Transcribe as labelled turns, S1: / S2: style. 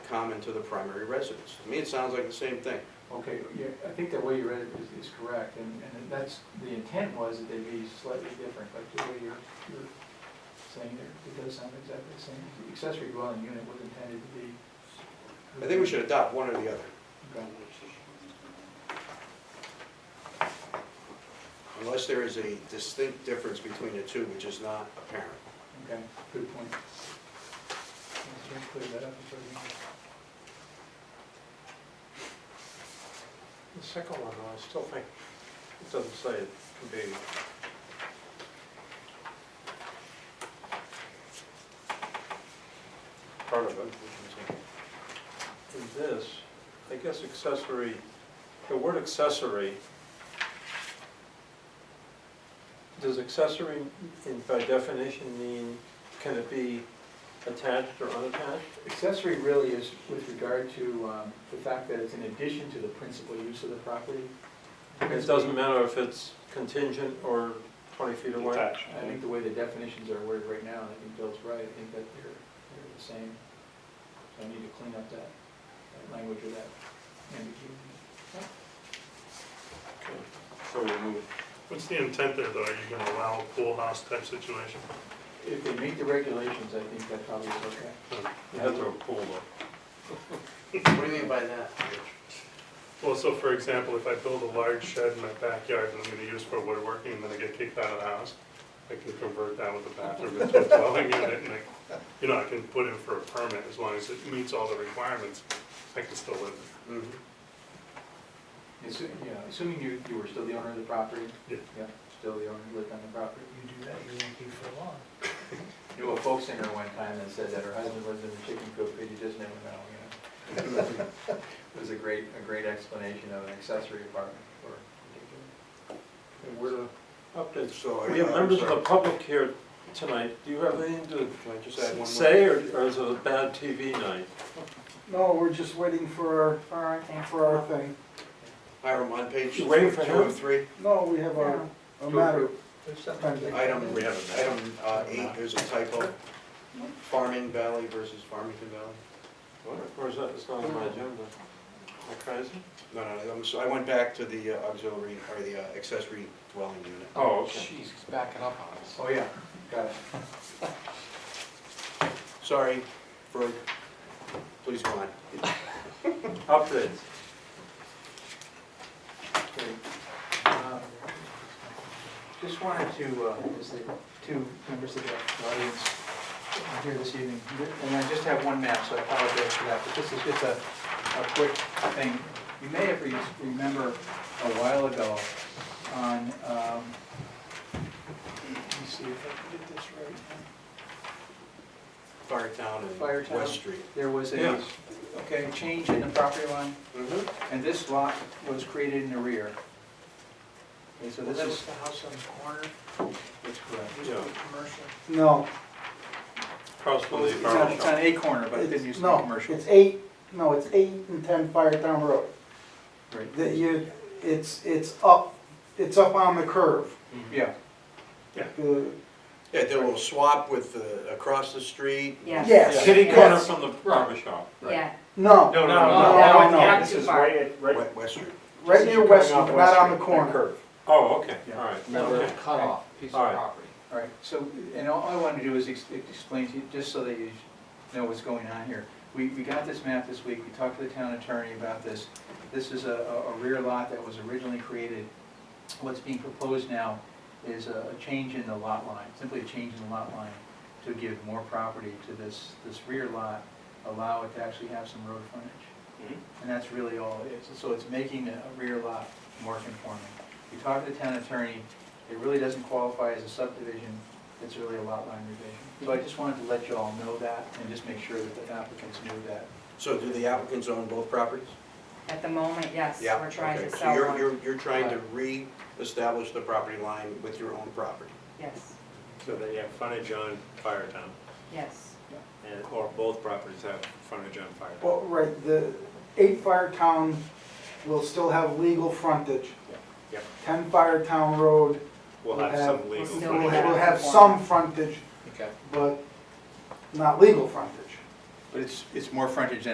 S1: common to the primary residence. To me, it sounds like the same thing.
S2: Okay, yeah, I think the way you read it is, is correct, and, and that's, the intent was that they be slightly different, but the way you're, you're saying there, it does sound exactly the same. The Accessory dwelling unit was intended to be.
S1: I think we should adopt one or the other,
S2: Okay.
S1: unless there is a distinct difference between the two, which is not apparent.
S2: Okay, good point. Let's try and clear that up before we-
S3: The second one, though, I still think, it doesn't say it can be. Part of it. which is, uh, In this, I guess accessory, the word accessory, does accessory in- by definition mean, can it be attached or unattached?
S2: Accessory really is with regard to, um, the fact that it's in addition to the principal use of the property.
S3: It doesn't matter if it's contingent or 20 feet away?
S2: I think the way the definitions are worded right now, I think Bill's right, I think that they're, they're the same. So I need to clean up that, that language or that ambiguity.
S3: So we'll move
S4: What's the intent there, though? Are you gonna allow a pool house type situation?
S2: If they meet the regulations, I think that probably is okay.
S4: Um,
S3: You have to pull though.
S1: What do you mean by that?
S4: Well, so for example, if I build a large shed in my backyard and I'm gonna use for woodworking, and then I get kicked out of the house, I can convert that with a bathroom into a dwelling unit, and I, you know, I can put in for a permit as long as it meets all the requirements, I can still live
S1: Mhm.
S2: Assu- yeah, assuming you, you were still the owner of the property?
S4: Yeah.
S2: still the owner, you lived on the property.
S5: You do that, you won't be for long.
S2: Knew a folk singer one time that said that her husband lived in a chicken coop, but you just never know, you know? It was a great, a great explanation of an accessory apartment or.
S3: We're, updates.
S1: So,
S3: we have members of the public here tonight. Do you have anything
S1: Can I just add one
S3: to
S1: more?
S3: say, or or is it a bad TV night?
S6: No, we're just waiting for, our- for our thing.
S1: Hiram, on page
S3: You
S1: two
S3: waiting for
S1: and
S3: him?
S1: three,
S6: No, we have a, a matter pending.
S1: item,
S3: We haven't.
S1: item uh, eight, there's a typo. Farming Valley versus Farmington Valley.
S3: Or is that, it's not on my agenda? Am I crazy?
S1: No, no, no, I'm so- I went back to the uh, auxiliary, or the uh, accessory dwelling unit.
S3: Oh,
S5: Jeez, he's backing up on us.
S2: Oh, yeah, got it.
S1: Sorry, Ferg, please go on.
S3: Updates.
S2: Great. Um, Just wanted to, uh, as the two members of the audience are here this evening, and I just have one map, so I apologize for that, but this is just a, a quick thing. You may have re- remember a while ago on, um, let me see if I can get this right.
S1: Firetown and
S2: Firetown.
S1: West Street.
S2: There was a,
S3: Yes.
S2: okay, change in the property line,
S1: Mm-hmm.
S2: and this lot was created in the rear. Okay, so this is,
S5: the house on the corner,
S2: that's correct.
S3: Yeah,
S5: commercial.
S6: No,
S3: across from the
S2: It's on,
S3: barber
S2: it's on
S3: shop.
S2: a corner, but it didn't
S6: it's,
S2: used to be
S6: no,
S2: commercial.
S6: it's eight, no, it's eight and ten Firetown Road.
S2: Right.
S6: That you, it's, it's up, it's up on the curve.
S2: Yeah,
S6: The-
S1: Yeah, there will swap with the, across the street.
S7: Yes.
S6: Yes.
S3: Kitty corner
S6: yes.
S3: from the barber shop.
S7: Yeah,
S6: No,
S3: No, no,
S6: no,
S3: no.
S7: no,
S6: no.
S7: not too far.
S1: West West Street.
S6: right near West, Street, but not on the
S2: that
S6: corner.
S3: Oh, okay,
S2: Yeah.
S3: all right.
S5: Another
S3: Okay.
S5: cut off piece of
S3: All right.
S5: property.
S2: all right, so, and all I wanted to do is ex- explain to you, just so that you know what's going on here. We, we got this map this week, we talked to the town attorney about this. This is a, a a rear lot that was originally created. What's being proposed now is a a change in the lot line, simply a change in the lot line to give more property to this, this rear lot, allow it to actually have some road frontage. And that's really all it is. So it's making a a rear lot more conforming. We talked to the town attorney, it really doesn't qualify as a subdivision, it's really a lot line revision. So I just wanted to let you all know that and just make sure that the applicants knew that.
S1: So do the applicants own both properties?
S7: at the moment, yes,
S1: Yeah,
S7: we're trying to
S1: okay.
S7: sell
S1: So you're,
S7: one,
S1: you're, you're trying to re-establish the property line with your own property.
S7: yes,
S8: So they have frontage on Firetown,
S7: yes.
S8: and, or both properties have frontage on Firetown.
S6: Well, right, the eight Firetown will still have legal frontage.
S8: Yep.
S6: Ten Firetown Road
S8: We'll
S6: we'll
S8: have
S6: have-
S8: some legal
S7: We'll
S6: will
S7: still
S8: frontage.
S6: will have some frontage,
S2: Okay.
S6: but not legal frontage.
S2: But it's, it's more frontage than